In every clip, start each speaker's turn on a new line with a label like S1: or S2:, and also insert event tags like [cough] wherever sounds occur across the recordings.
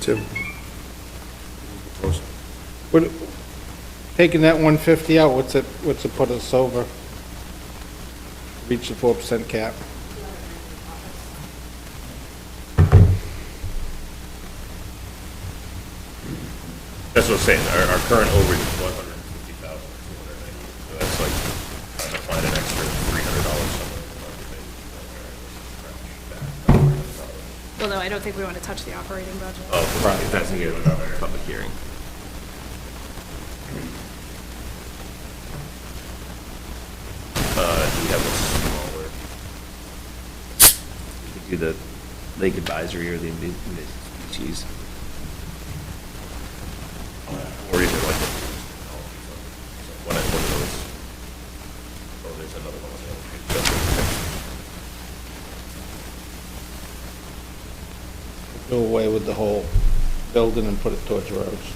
S1: Tim?
S2: What, taking that one fifty out, what's it, what's it put us over? Reach the four percent cap.
S3: That's what I'm saying, our, our current overage is one hundred and fifty thousand, two hundred and ninety, so that's like, trying to find an extra three hundred dollars somewhere. in the budget that you can go there and scratch back that
S4: Well, no, I don't think we want to touch the operating budget.
S3: $100. Oh, right, that's gonna get another public hearing. Uh, do we have a smaller?
S5: We could Do the lake advisory or the invasive species.
S3: Or even like a, one of, one of those. Oh, there's another one on the other page.
S2: Do away with the whole building and put it towards roads.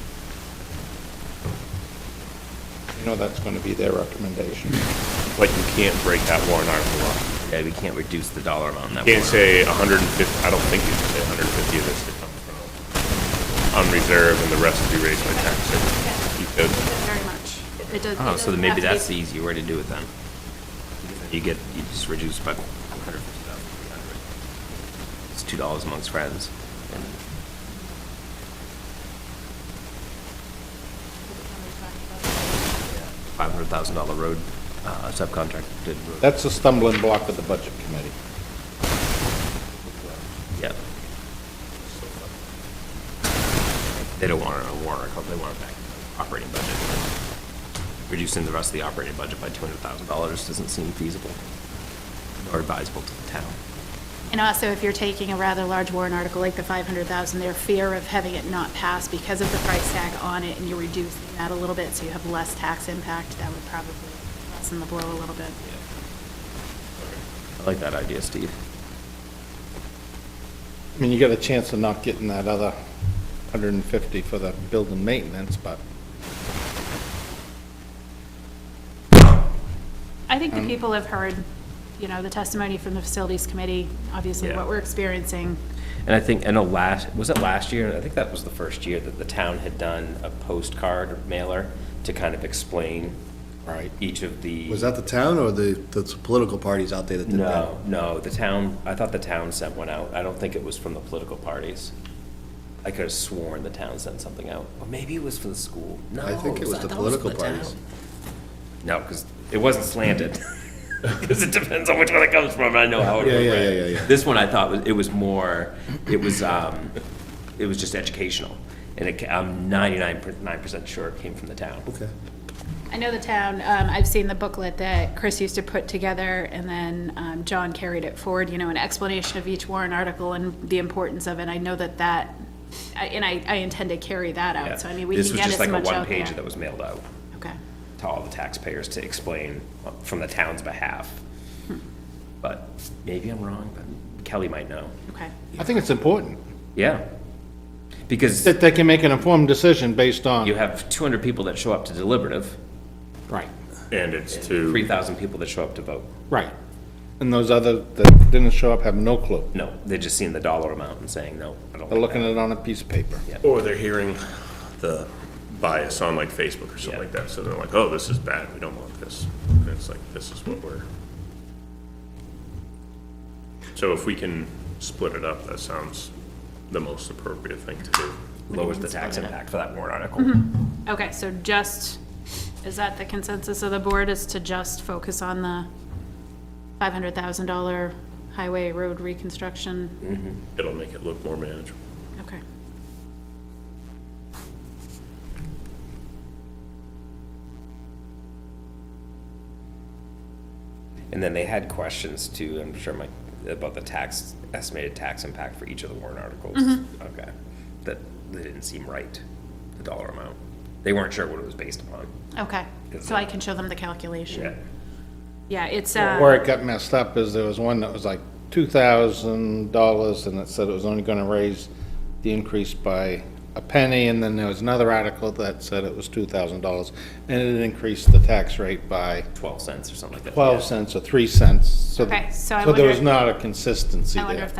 S2: You know that's gonna be their recommendation.
S3: But you can't break that warrant article up.
S5: Yeah, we can't reduce the dollar amount on that.
S3: You Can't say
S5: warrant.
S3: hundred and fifty, I don't think you can say hundred and fifty of this to come from unreserved and the rest to be raised by tax service. You could,
S4: Very much. It does. it
S5: Oh, so
S4: doesn't
S5: then maybe
S4: have to be-
S5: that's the easier way to do it then. You get, you just reduce by 150,000, 300. It's $2 amongst friends. and $500,000 road uh, subcontracted. road.
S2: That's a stumbling block of the budget committee.
S5: Yep. They don't want it on a warrant article, they want it back in the operating budget. Reducing the rest of the operating budget by $200,000 doesn't seem feasible or advisable to the town.
S4: And also, if you're taking a rather large warrant article like the 500,000, their fear of having it not pass because of the price tag on it, and you reduce that a little bit, so you have less tax impact, that would probably lessen the blow a little bit.
S5: I like that idea, Steve.
S2: I mean, you got a chance of not getting that other hundred and fifty for the building maintenance, but
S4: I think the
S5: Um,
S4: people have heard, you know, the testimony from the facilities committee, obviously
S5: Yeah.
S4: what we're experiencing.
S5: And I think, I know last, was it last year? I think that was the first year that the town had done a postcard mailer to kind of explain
S2: Right.
S5: each of the.
S1: Was that the town or the, the political parties out there that did that?
S5: No, no, the town, I thought the town sent one out. I don't think it was from the political parties. I could have sworn the town sent something out. Or maybe it was for the school. No.
S1: I think it was
S5: I
S1: the
S5: thought from
S1: political
S5: town.
S1: parties.
S5: No, because it wasn't slanted. [laughs] Because it depends on which one it comes from, I know how it
S1: Yeah,
S5: was
S1: yeah,
S5: read.
S1: yeah, yeah, yeah.
S5: This one I thought was, it was more, it was, um, it was just educational. And it, ca- I'm ninety-nine percent sure it came from the town.
S1: Okay.
S4: I know the town, um, I've seen the booklet that Chris used to put together, and then, um, John carried it forward, you know, an explanation of each warrant article and the importance of it. I know that that, I- and I, I intend to carry that
S5: Yeah.
S4: out, so I mean, we can get as
S5: This was
S4: much
S5: just like a
S4: out
S5: one-pager that
S4: there.
S5: was mailed out
S4: Okay.
S5: to all the taxpayers to explain uh, from the town's behalf.
S4: Hmm.
S5: But maybe I'm wrong, but Kelly might know.
S4: Okay.
S2: I think it's important
S5: Yeah. Because
S2: that they can make an informed decision based on.
S5: you have two hundred people that show up to deliberative,
S2: Right.
S3: and it's
S5: three
S3: to,
S5: thousand people that show up to vote.
S2: Right. And those other that didn't show up have no clue.
S5: No, they're just seeing the dollar amount and saying, no, I don't.
S2: They're
S5: like
S2: looking
S5: that."
S2: at it on a piece of paper.
S3: or they're hearing the bias on like Facebook or something
S5: Yeah.
S3: like that, so they're like, oh, this is bad, we don't want this. And it's like, this is what we're. So if we can split it up, that sounds the most appropriate thing to do.
S5: Lowers the tax impact for that warrant article.
S4: Okay, so just, is that the consensus of the board, is to just focus on the $500,000 highway road reconstruction?
S3: It'll make it look more manageable.
S5: Mm-hmm.
S4: Okay.
S5: And then they had questions too, I'm sure Mike, about the tax, estimated tax impact for each of the warrant articles. Okay. That, that didn't seem right, the dollar amount. They weren't sure what it was based upon.
S4: Okay, so I can show them the calculation. Yeah, it's,
S2: Where
S4: uh,
S2: it got messed up is there was one that was like two thousand dollars and it said it was only gonna raise the increase by a penny, and then there was another article that said it was two thousand dollars, and it increased the tax rate by
S5: Twelve cents or something like that.
S2: twelve cents or three cents, so. th-
S4: Okay, so I
S2: there was
S4: wonder-
S2: not a consistency
S4: I
S2: there.
S4: wonder if